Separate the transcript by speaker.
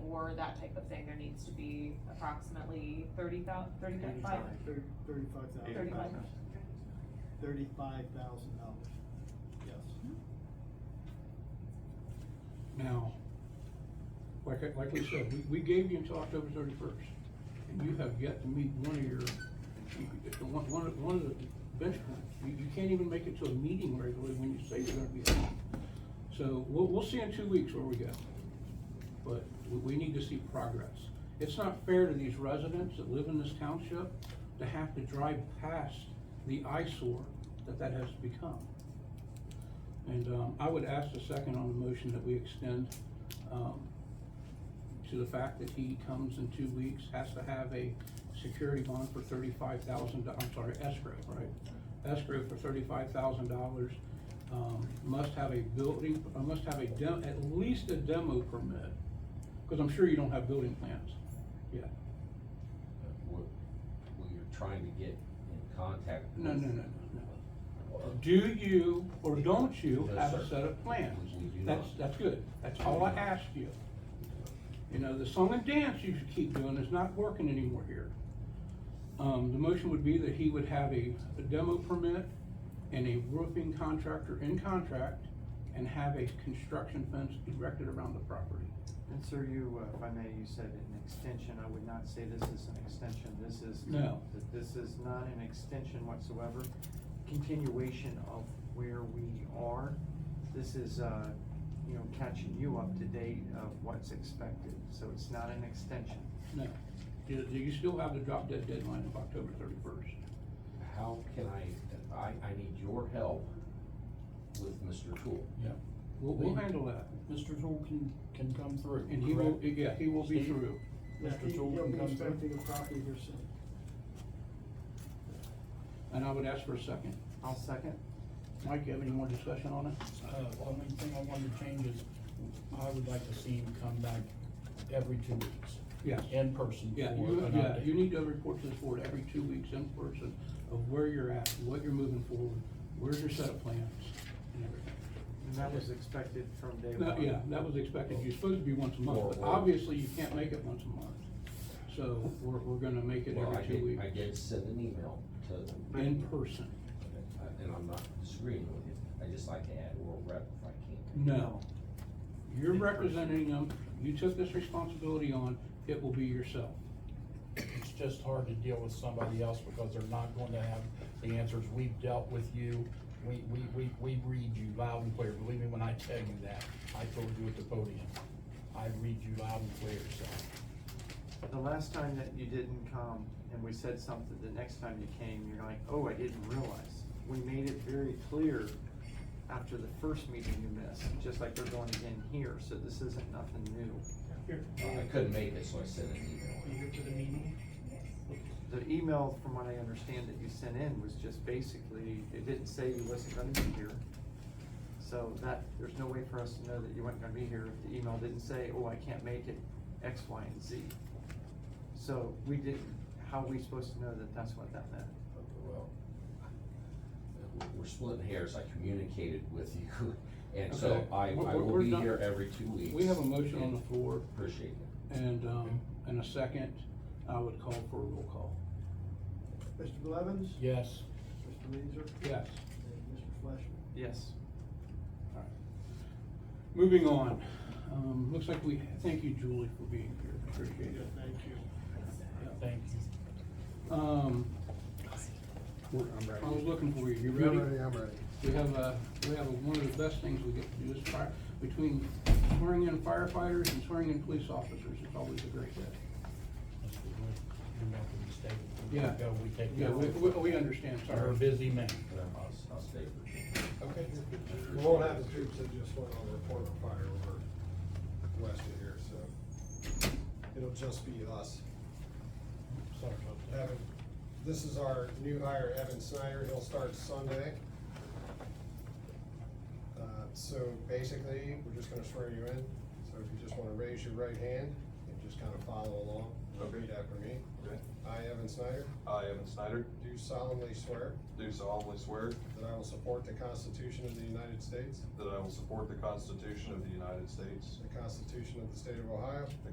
Speaker 1: for that type of thing, there needs to be approximately thirty thou, thirty-five,
Speaker 2: Eighty-five.
Speaker 3: Thirty, thirty-five thousand.
Speaker 1: Thirty-five.
Speaker 3: Thirty-five thousand dollars, yes.
Speaker 2: Now, like, I- like we said, we, we gave you until October thirty-first, and you have yet to meet one of your, you- one, one of, one of the benchmarks. You, you can't even make it to a meeting regularly when you say you're gonna be there. So, we'll, we'll see in two weeks where we go. But we, we need to see progress. It's not fair to these residents that live in this township to have to drive past the eyesore that that has become. And um, I would ask the second on the motion that we extend um, to the fact that he comes in two weeks, has to have a security bond for thirty-five thousand, I'm sorry, escrow, right? Escrow for thirty-five thousand dollars, um, must have a building, uh, must have a dem, at least a demo permit, because I'm sure you don't have building plans yet.
Speaker 4: What, what you're trying to get in contact with.
Speaker 2: No, no, no, no, no. Do you or don't you
Speaker 4: No,
Speaker 2: have a
Speaker 4: sir.
Speaker 2: set of plans?
Speaker 4: We do
Speaker 2: That's,
Speaker 4: not.
Speaker 2: that's good, that's all I ask you. You know, the song and dance you should keep doing is not working anymore here. Um, the motion would be that he would have a, a demo permit and a roofing contractor in contract and have a construction fence erected around the property.
Speaker 5: And sir, you, uh, if I may, you said an extension, I would not say this is an extension, this is.
Speaker 2: No.
Speaker 5: that This is not an extension whatsoever, continuation of where we are. This is, uh, you know, catching you up to date of what's expected, so it's not an extension.
Speaker 2: No, do, do you still have the drop dead deadline of October thirty-first?
Speaker 4: How can I, I, I need your help with Mr. Tool.
Speaker 6: Yeah,
Speaker 2: We'll, we'll handle that,
Speaker 6: Mr. Tool can, can come through.
Speaker 2: and he will,
Speaker 6: correct?
Speaker 2: yeah, he will be
Speaker 6: Steve?
Speaker 2: through.
Speaker 3: Yeah,
Speaker 6: Mr.
Speaker 3: he-
Speaker 6: Tool
Speaker 3: He'll
Speaker 6: can
Speaker 3: be
Speaker 6: come through.
Speaker 3: expecting a copy here soon.
Speaker 2: And I would ask for a second.
Speaker 5: I'll second.
Speaker 2: Mike, you have any more discussion on it?
Speaker 6: Uh, only thing I wanted to change is, I would like to see him come back every two weeks.
Speaker 2: Yes.
Speaker 6: In person for
Speaker 2: Yeah,
Speaker 6: an
Speaker 2: you, yeah,
Speaker 6: update.
Speaker 2: you need to report to this board every two weeks in person of where you're at, what you're moving forward, where's your set of plans and everything.
Speaker 5: And that was expected from day
Speaker 2: No,
Speaker 5: one.
Speaker 2: yeah, that was expected. You're supposed to be once a month, but
Speaker 4: Or- or-
Speaker 2: obviously you can't make it once a month. So we're, we're gonna make it
Speaker 4: Well, I
Speaker 2: every two
Speaker 4: did,
Speaker 2: weeks.
Speaker 4: I did send an email to.
Speaker 2: In person.
Speaker 4: And I'm not disagreeing with you, I just like to add oral rep if I can.
Speaker 2: No. You're
Speaker 5: In person.
Speaker 2: representing them. You took this responsibility on. It will be yourself.
Speaker 6: It's just hard to deal with somebody else because they're not going to have the answers. We've dealt with you. We, we, we, we read you loud and clear. Believe me when I tell you that. I told you at the podium. I read you loud and clear, so.
Speaker 5: The last time that you didn't come and we said something, the next time you came, you're like, oh, I didn't realize. We made it very clear after the first meeting you missed, just like we're going again here, so this isn't nothing new.
Speaker 7: Here,
Speaker 4: I couldn't make it, so I sent an email.
Speaker 7: here to the meeting.
Speaker 5: The email, from what I understand that you sent in, was just basically, it didn't say you wasn't gonna be here. So that, there's no way for us to know that you weren't gonna be here if the email didn't say, oh, I can't make it, X, Y, and Z. So we didn't, how are we supposed to know that that's what that meant?
Speaker 4: Well, we're- We're splitting hairs, I communicated with you, and so
Speaker 2: Okay.
Speaker 4: I,
Speaker 2: We're-
Speaker 4: I
Speaker 2: we're-
Speaker 4: will
Speaker 2: we're
Speaker 4: be
Speaker 2: done.
Speaker 4: here every two weeks.
Speaker 2: We have a motion on the
Speaker 4: and
Speaker 2: floor.
Speaker 4: Appreciate it.
Speaker 2: And, um, in a second, I would call for a roll call.
Speaker 3: Mr. Blevins?
Speaker 6: Yes,
Speaker 3: Mr. Leeser?
Speaker 2: Yes.
Speaker 3: And Mr. Fleishman?
Speaker 5: Yes.
Speaker 2: All right. Moving on, um, looks like we, thank you Julie for being here, appreciate it.
Speaker 3: Thank you.
Speaker 6: thank you.
Speaker 2: Um,
Speaker 8: I'm
Speaker 2: I
Speaker 8: ready.
Speaker 2: was looking for you, you
Speaker 8: You're
Speaker 2: ready?
Speaker 8: I'm ready.
Speaker 2: We have a, we have a- one of the best things we get to do is fire, between swearing in firefighters and swearing in police officers, it's always a great day.
Speaker 6: Mr. Wood, You're welcome to stay. If you
Speaker 2: Yeah.
Speaker 6: Go, we take.
Speaker 2: Yeah, we, we, we understand, sorry.
Speaker 6: You're a busy man.
Speaker 4: But I'll, I'll stay for you.
Speaker 8: Okay. We won't have the troops that just went on the report of fire over west of here, so it'll just be us.
Speaker 6: Sorry about that.
Speaker 8: Evan, this is our new hire, Evan Snyder, he'll start Sunday. Uh, so basically, we're just gonna swear you in, so if you just wanna raise your right hand and just kinda follow along, repeat after me.
Speaker 9: Okay.
Speaker 8: I, Evan Snyder,
Speaker 9: I, Evan Snyder,
Speaker 8: do solemnly swear
Speaker 9: do solemnly swear
Speaker 8: that I will support the Constitution of the United States
Speaker 9: that I will support the Constitution of the United States
Speaker 8: The Constitution of the State of Ohio.